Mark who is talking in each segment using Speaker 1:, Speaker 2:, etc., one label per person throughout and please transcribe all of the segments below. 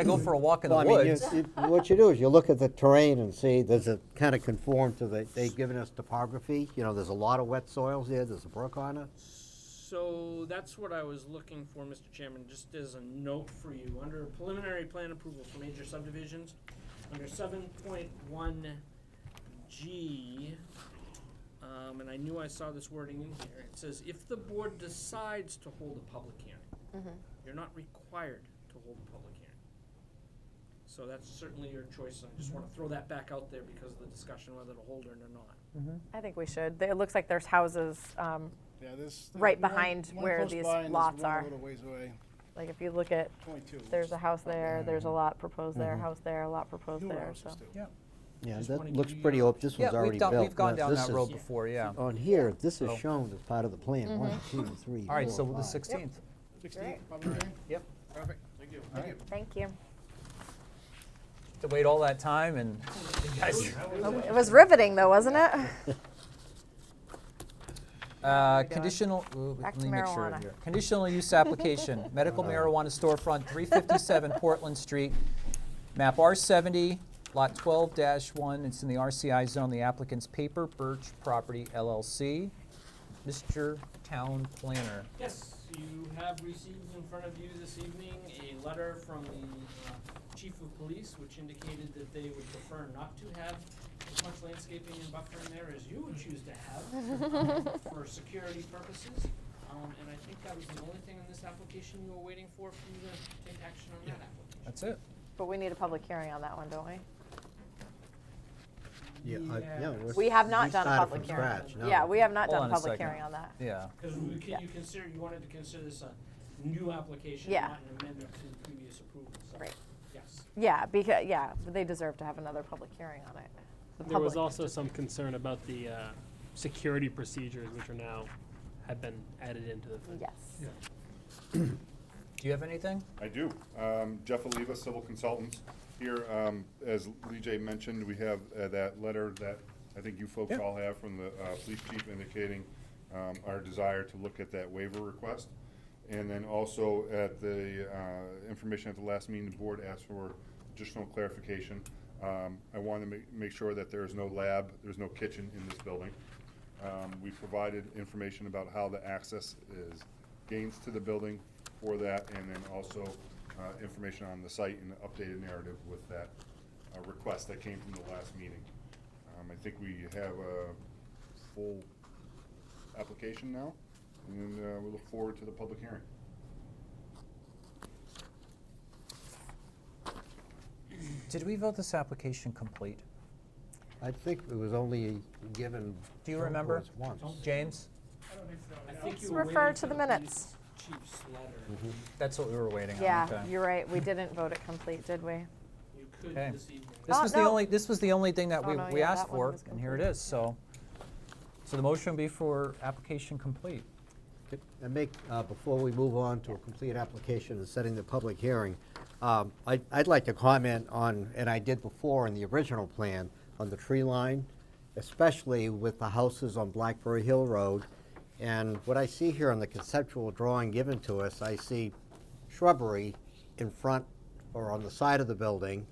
Speaker 1: I go for a walk in the
Speaker 2: Well, I mean, you-
Speaker 1: woods.
Speaker 2: you- What you do is you look at the terrain and see, does it kind of conform to the, they've given us topography, you know, there's a lot of wet soils there, there's a brook on it.
Speaker 3: So that's what I was looking for, Mr. Chairman, just as a note for you, under preliminary plan approval for major subdivisions, under seven point one G, um, and I knew I saw this wording in here, it says, if the board decides to hold a public hearing, you're not required to hold a public hearing. So that's certainly your choice, I just wanna throw that back out there because of the discussion whether to hold it or not.
Speaker 4: I think we should. It looks like there's houses, um,
Speaker 5: Yeah, this.
Speaker 4: Right
Speaker 5: one-
Speaker 4: behind
Speaker 5: one
Speaker 4: where
Speaker 5: close
Speaker 4: these
Speaker 5: by and there's
Speaker 4: lots
Speaker 5: one a
Speaker 4: are.
Speaker 5: little ways away,
Speaker 4: like if you look at,
Speaker 5: 22.
Speaker 4: there's a house there, there's
Speaker 2: Mm-hmm.
Speaker 4: a lot proposed there, house there, a lot proposed
Speaker 5: Newer
Speaker 4: there,
Speaker 5: houses
Speaker 4: so.
Speaker 5: too.
Speaker 2: Yeah,
Speaker 3: Just wanna
Speaker 2: that
Speaker 3: give
Speaker 2: looks
Speaker 3: you
Speaker 2: pretty
Speaker 1: uh,
Speaker 3: your-
Speaker 2: open, this one's
Speaker 1: Yeah,
Speaker 2: already
Speaker 1: we've
Speaker 2: built.
Speaker 1: done, we've gone
Speaker 2: Now,
Speaker 1: down
Speaker 2: this
Speaker 1: that road
Speaker 2: is-
Speaker 1: before, yeah. All
Speaker 2: On here, this is
Speaker 1: So-
Speaker 2: shown as part of the plan, one,
Speaker 1: Mm-hmm.
Speaker 2: two, three,
Speaker 1: right,
Speaker 2: four,
Speaker 1: so the
Speaker 2: five.
Speaker 1: 16th.
Speaker 5: 16, probably right?
Speaker 1: Yep.
Speaker 5: Perfect, thank you. Thank you.
Speaker 4: Thank you.
Speaker 1: To wait all that time and
Speaker 4: It was riveting though, wasn't it?
Speaker 1: Uh, Conditional, ooh,
Speaker 4: Back
Speaker 1: let
Speaker 4: to
Speaker 1: me make sure
Speaker 4: marijuana.
Speaker 1: here. Conditional use application, medical
Speaker 2: Uh-huh.
Speaker 1: marijuana storefront, 357 Portland Street, map R70, lot 12-1. It's in the RCI zone. The applicant's Paper Birch Property LLC. Mr. Town Planner.
Speaker 3: Yes, you have received in front of you this evening a letter from the uh, chief of police, which indicated that they would prefer not to have as much landscaping and buffering there as you would choose to have um, for security purposes. Um, And I think that was the only thing in this application you were waiting for, for you to take action on that application.
Speaker 1: That's it.
Speaker 4: But we need a public hearing on that one, don't we?
Speaker 2: Yeah, I- yeah,
Speaker 3: Yeah.
Speaker 2: we're-
Speaker 4: We have not
Speaker 2: we
Speaker 4: done a
Speaker 2: started
Speaker 4: public
Speaker 2: from
Speaker 4: hearing.
Speaker 2: scratch, no.
Speaker 4: Yeah, we have not
Speaker 1: Hold
Speaker 4: done
Speaker 1: on
Speaker 4: a
Speaker 1: a
Speaker 4: public
Speaker 1: second.
Speaker 4: hearing on that.
Speaker 1: Yeah.
Speaker 3: Because we,
Speaker 4: Yeah.
Speaker 3: can- you consider, you wanted to consider this a new application,
Speaker 4: Yeah.
Speaker 3: not an amendment to the previous approval, so,
Speaker 4: Right.
Speaker 3: yes.
Speaker 4: Yeah, because, yeah, but they deserve to have another public hearing on it. The
Speaker 6: There was
Speaker 4: public.
Speaker 6: also some concern about the uh, security procedures, which are now, have been added into the thing.
Speaker 4: Yes.
Speaker 1: Do you have anything?
Speaker 7: I do. Um, Jeff Oliva, civil consultants here. Um, As Lee J mentioned, we have uh, that letter that I think you folks all have from the uh, police chief indicating um, our desire to look at that waiver request. And then also at the uh, information at the last meeting, the board asked for additional clarification. Um, I want to make, make sure that there is no lab, there's no kitchen in this building. Um, We provided information about how the access is gains to the building for that, and then also uh, information on the site and the updated narrative with that uh, request that came from the last meeting. Um, I think we have a full application now, and uh, we look forward to the public hearing.
Speaker 1: Did we vote this application complete?
Speaker 2: I think it was only given.
Speaker 1: Do you remember?
Speaker 2: once, Once.
Speaker 1: James?
Speaker 3: I think
Speaker 4: Let's
Speaker 3: you were
Speaker 4: refer
Speaker 3: waiting
Speaker 4: to
Speaker 3: for
Speaker 4: the
Speaker 3: police
Speaker 4: minutes.
Speaker 3: Chief's letter.
Speaker 1: That's what we were waiting on.
Speaker 4: Yeah,
Speaker 1: okay.
Speaker 4: you're right. We didn't vote it complete, did we?
Speaker 3: You could
Speaker 1: Okay.
Speaker 3: this evening.
Speaker 1: This
Speaker 4: Oh,
Speaker 1: was the
Speaker 4: no.
Speaker 1: only, this was the only thing that
Speaker 4: Oh,
Speaker 1: we,
Speaker 4: no,
Speaker 1: we
Speaker 4: yeah,
Speaker 1: asked
Speaker 4: that one
Speaker 1: for,
Speaker 4: was
Speaker 1: and here it is, so. So the motion would be for application complete.
Speaker 2: And make, uh, before we move on to a complete application and setting the public hearing, um, I- I'd like to comment on, and I did before in the original plan, on the tree line, especially with the houses on Blackberry Hill Road. And what I see here on the conceptual drawing given to us, I see shrubbery in front or on the side of the building.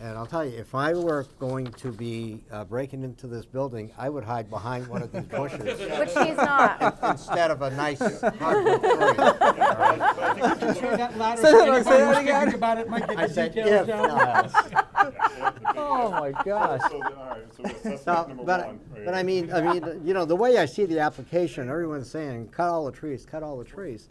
Speaker 2: And I'll tell you, if I were going to be uh, breaking into this building, I would hide behind one of these bushes
Speaker 4: Which he's not.
Speaker 2: instead of a nice hardwood tree.
Speaker 1: Say that- say that again.
Speaker 2: I said, if not.
Speaker 1: Oh, my gosh.
Speaker 7: So, all right, so that's
Speaker 2: No,
Speaker 7: suspect number
Speaker 2: But,
Speaker 7: one. right
Speaker 2: but I
Speaker 7: here.
Speaker 2: mean, I mean, you know, the way I see the application, everyone's saying, cut all the trees, cut all the trees.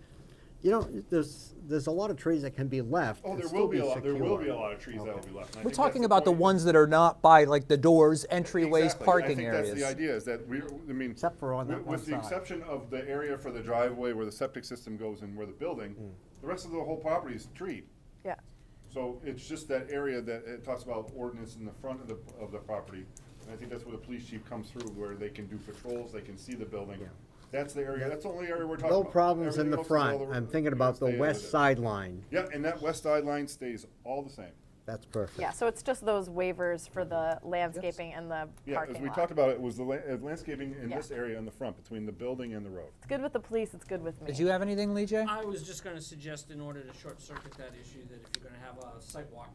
Speaker 2: You know, there's, there's a lot of trees that can be left
Speaker 7: Oh,
Speaker 2: and
Speaker 7: there
Speaker 2: still
Speaker 7: will
Speaker 2: be
Speaker 7: be a
Speaker 2: secure.
Speaker 7: lot, there will be a lot of trees that will be left. and I
Speaker 1: We're
Speaker 7: think that's
Speaker 1: talking about the
Speaker 7: point.
Speaker 1: ones that are not by, like, the doors, entryways,
Speaker 7: Exactly.
Speaker 1: parking
Speaker 7: I think that's the
Speaker 1: areas.
Speaker 7: idea, is that we, I mean.
Speaker 2: Except for on that
Speaker 7: with-
Speaker 2: one
Speaker 7: With the
Speaker 2: side.
Speaker 7: exception of the area for the driveway where the septic system goes and where the building,
Speaker 2: Hmm.
Speaker 7: the rest of the whole property is treed.
Speaker 4: Yeah.
Speaker 7: So it's just that area that it talks about ordinance in the front of the, of the property. And I think that's where the police chief comes through, where they can do patrols, they can see the building. That's the area, that's the only area we're talking
Speaker 2: No
Speaker 7: about.
Speaker 2: problems in
Speaker 7: Everything
Speaker 2: the
Speaker 7: else is all
Speaker 2: front. I'm thinking
Speaker 7: you
Speaker 2: about the
Speaker 7: gotta stay out of
Speaker 2: west
Speaker 7: it.
Speaker 2: sideline.
Speaker 7: Yeah, and that west side line stays all the same.
Speaker 2: That's perfect.
Speaker 4: Yeah, so it's just those waivers for the landscaping and the
Speaker 7: Yeah,
Speaker 4: parking
Speaker 7: as we
Speaker 4: lot.
Speaker 7: talked about, it was the la- uh, landscaping in
Speaker 4: Yeah.
Speaker 7: this area on the front, between the building and the road.
Speaker 4: It's good with the police, it's good with me.
Speaker 1: Did you have anything, Lee J?
Speaker 3: I was just gonna suggest in order to short circuit that issue, that if you're gonna have a site walk,